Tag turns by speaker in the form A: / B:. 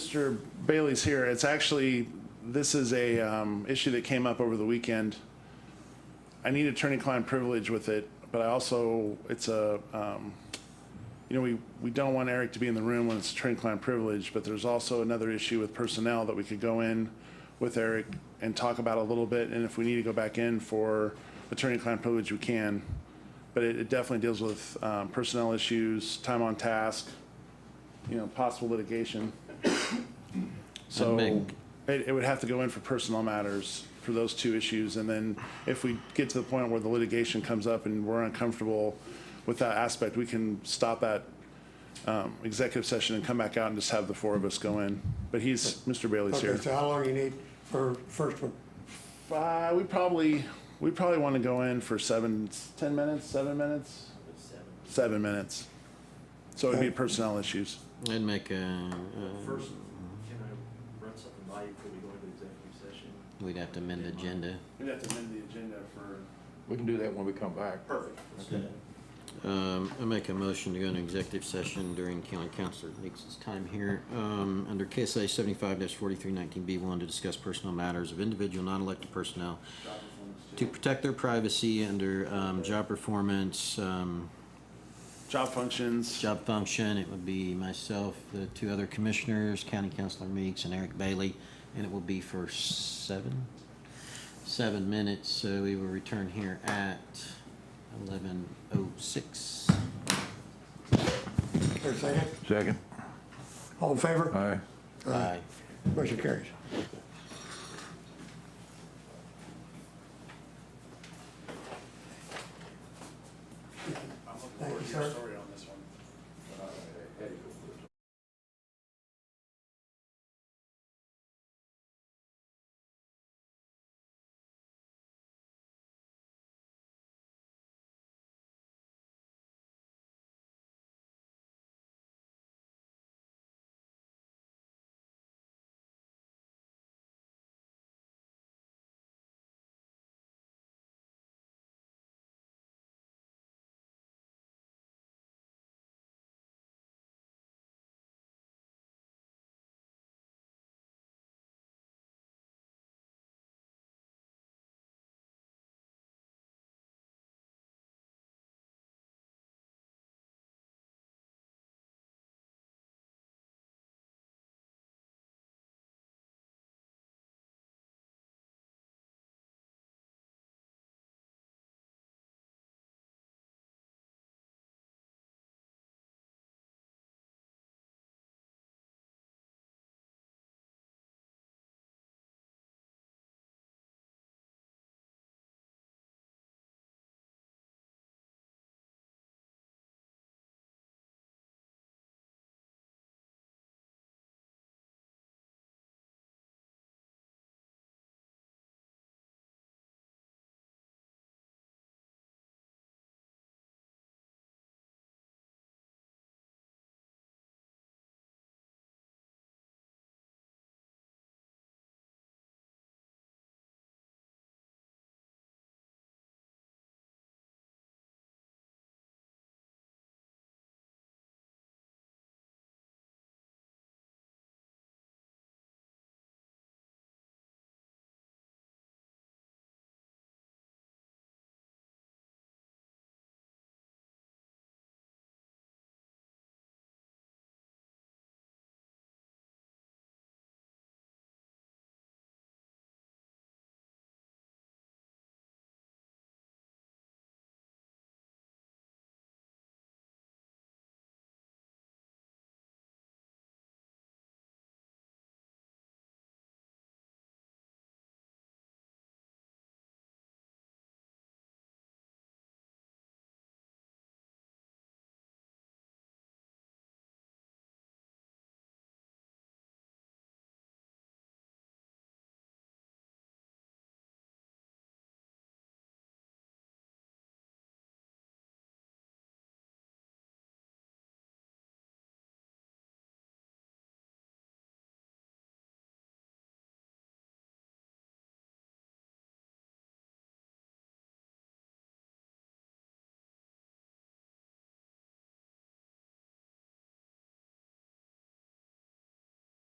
A: Mr. Bailey's here, it's actually, this is a um, issue that came up over the weekend. I need attorney-client privilege with it, but I also, it's a, um, you know, we, we don't want Eric to be in the room when it's attorney-client privilege, but there's also another issue with personnel that we could go in with Eric and talk about a little bit, and if we need to go back in for attorney-client privilege, we can. But it it definitely deals with um, personnel issues, time on task, you know, possible litigation. So
B: make-
A: it, it would have to go in for personnel matters for those two issues. And then if we get to the point where the litigation comes up and we're uncomfortable with that aspect, we can stop that um, executive session and come back out and just have the four of us go in. But he's, Mr. Bailey's
C: Okay,
A: here.
C: so how long you need for first one?
A: Uh, we probably, we probably want to go in for seven, ten minutes, seven minutes? Seven minutes. So it'd be
C: Okay.
A: personnel issues.
B: I'd make a, uh,
D: First, can I run something by you before we go into executive session?
B: we'd have to amend the agenda.
A: We'd have to amend the agenda for.
E: We can do that when we come back.
D: Perfect. Okay.
B: Um, I make a motion to go into executive session during county council Leaks' time here. Um, under KSA seventy-five forty-three nineteen B one to discuss personal matters of individual non-elected personnel to protect their privacy under, um, job performance, um,
A: Job functions.
B: job function. It would be myself, the two other commissioners, County Councilor Meeks and Eric Bailey, and it will be for seven, seven minutes. So we will return here at eleven oh six.
C: Or second?
E: Second.
C: All in favor?
E: Aye.
B: Bye.
C: Motion carries. Thank you, sir.